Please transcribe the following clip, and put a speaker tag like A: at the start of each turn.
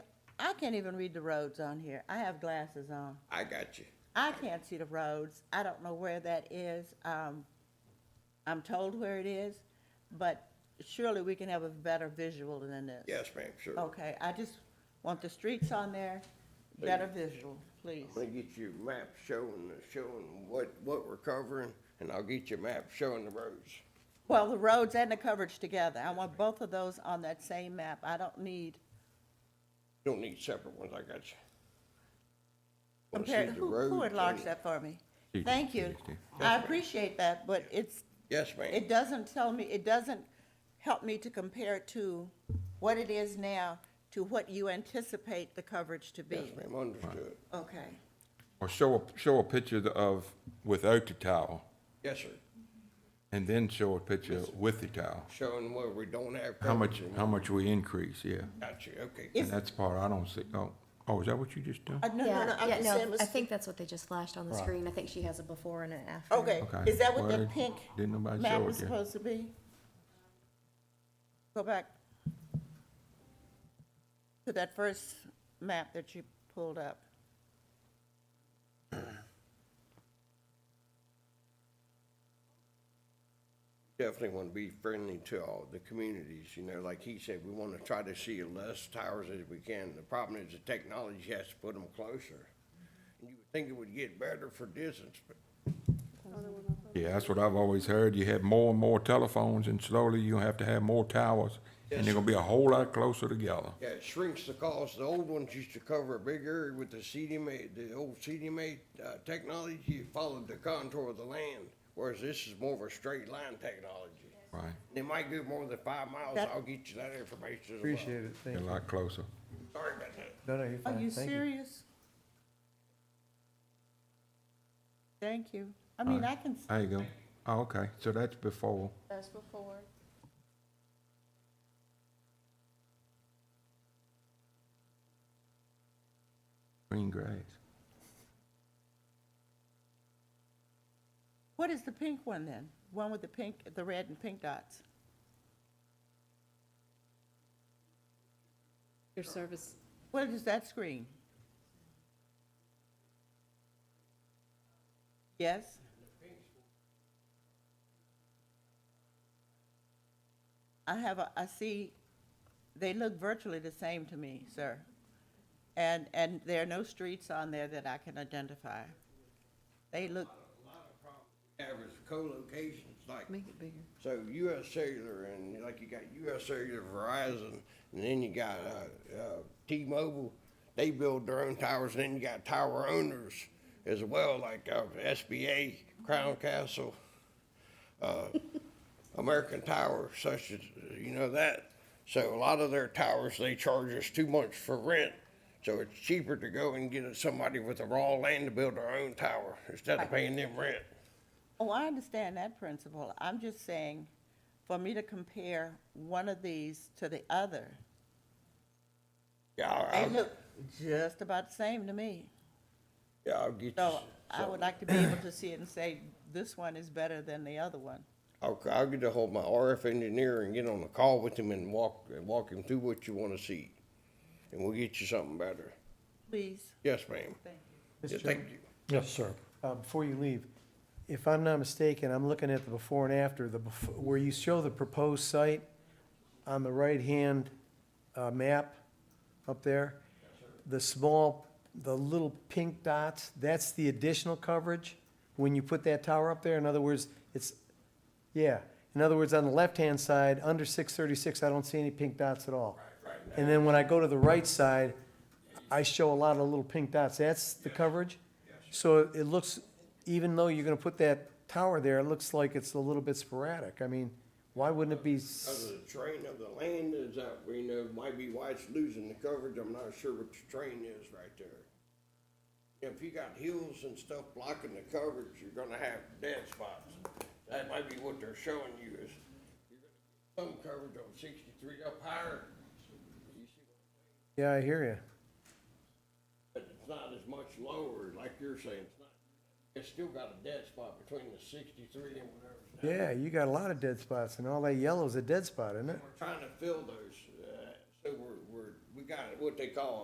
A: I can't even read the roads on here. I have glasses on.
B: I got you.
A: I can't see the roads. I don't know where that is. Um, I'm told where it is, but surely we can have a better visual than this.
B: Yes, ma'am, sure. I'm
A: Okay, I just want the streets on there, better visual, please.
B: gonna get you a map showing, showing what, what we're covering, and I'll get you a map showing the roads.
A: Well, the roads and the coverage together. I want both of those on that same map. I don't need,
B: Don't need separate ones, I got you. Wanna see
A: compare,
B: the
A: who, who
B: roads
A: enlarged
B: and-
A: that for me?
C: She
A: Thank
C: did, she
A: you.
C: did, she did.
A: I appreciate that, but it's,
B: Yes, ma'am.
A: it doesn't tell me, it doesn't help me to compare it to what it is now to what you anticipate the coverage to
B: Yes,
A: be.
B: ma'am, understood.
A: Okay,
C: Or show a, show a picture of, without the towel,
B: Yes, sir.
C: and then show a picture with the towel.
B: Showing where we don't have
C: How much,
B: coverage. and-
C: how much we increase, yeah.
B: Got you, okay.
A: Is-
C: And that's the part I don't see, oh, oh, is that what you just done?
A: Uh, no, no, no,
D: Yeah,
A: I'm
D: yeah,
A: just
D: no,
A: saying it was-
D: I think that's what they just flashed on the
C: Right.
D: screen. I think she has a before and an after.
A: Okay,
C: Okay.
A: is that what
C: Well,
A: that pink
C: didn't nobody
A: map
C: show it
A: was
C: yet.
A: supposed to be? Go back to that first map that you pulled up.
B: Definitely want to be friendly to all the communities, you know, like he said, we want to try to see less towers as we can. The problem is the technology has to put them closer. And You would think it would get better for distance, but
C: Yeah, that's what I've always heard. You have more and more telephones, and slowly you have to have more towers, and they're gonna be a whole lot closer together.
B: yeah, it shrinks the cost. The old ones used to cover a big area with the CDMA, the old CDMA uh, technology, you followed the contour of the land, whereas this is more of a straight line technology.
C: Right,
B: They might go more than five miles.
A: That-
B: I'll get you that information as well.
E: Appreciate it,
C: a
E: thank you.
C: lot closer.
B: Sorry about that.
E: No, no, you're
A: Are you
E: fine, thank you.
A: serious? Thank you. I mean, I can,
C: There you go. Oh, okay, so that's before.
F: That's before.
C: Green grass.
A: what is the pink one then? One with the pink, the red and pink dots?
F: Your service.
A: What is that screen? Yes? I have a, I see, they look virtually the same to me, sir. And, and there are no streets on there that I can identify. They look,
B: Average co-locations like
F: Make it bigger.
B: So U.S. Cellular and like you got U.S. Cellular, Verizon, and then you got uh, uh, T-Mobile. They build their own towers, and then you got tower owners as well, like uh, SBA, Crown Castle, uh, American Tower, such as you know that. So a lot of their towers they charge us too much for rent. So it's cheaper to go and get somebody with the raw land to build their own tower instead of paying them rent.
A: oh, I understand that principle. I'm just saying, for me to compare one of these to the other,
B: Yeah, I-
A: they
B: I'll,
A: look just about the same to me.
B: yeah, I'll get you.
A: So I
B: some.
A: would like to be able to see it and say, this one is better than the other one.
B: I'll, I'll get ahold of my RF engineer and get on a call with him and walk, and walk him through what you wanna see. And we'll get you something better.
A: Please,
B: Yes, ma'am.
A: thank you.
B: Yeah,
E: Mr.
B: Thank you.
G: Yes, sir.
E: Uh, Before you leave, if I'm not mistaken, I'm looking at the before and after, the, bef- where you show the proposed site on the right-hand uh, map up there, the small, the little pink dots, that's the additional coverage when you put that tower up there? In other words, it's, yeah, in other words, on the left-hand side, under 636, I don't see any pink dots at all. And then when I go to the right side, I show a lot of little pink dots. That's the coverage? So it looks, even though you're gonna put that tower there, it looks like it's a little bit sporadic. I mean, why wouldn't it be? s-
B: Cause the terrain of the land is out, we know, might be why it's losing the coverage, I'm not sure what the terrain is right there. If you got hills and stuff blocking the coverage, you're gonna have dead spots. That might be what they're showing you is, you're gonna get some coverage on sixty-three up higher. You see
E: Yeah, I hear you.
B: But it's not as much lower, like you're saying, it's not, it's still got a dead spot between the sixty-three and whatever.
E: Yeah, you got a lot of dead spots, and all that yellow's a dead spot, isn't it?
B: We're trying to fill those, uh, so we're, we're, we got what they call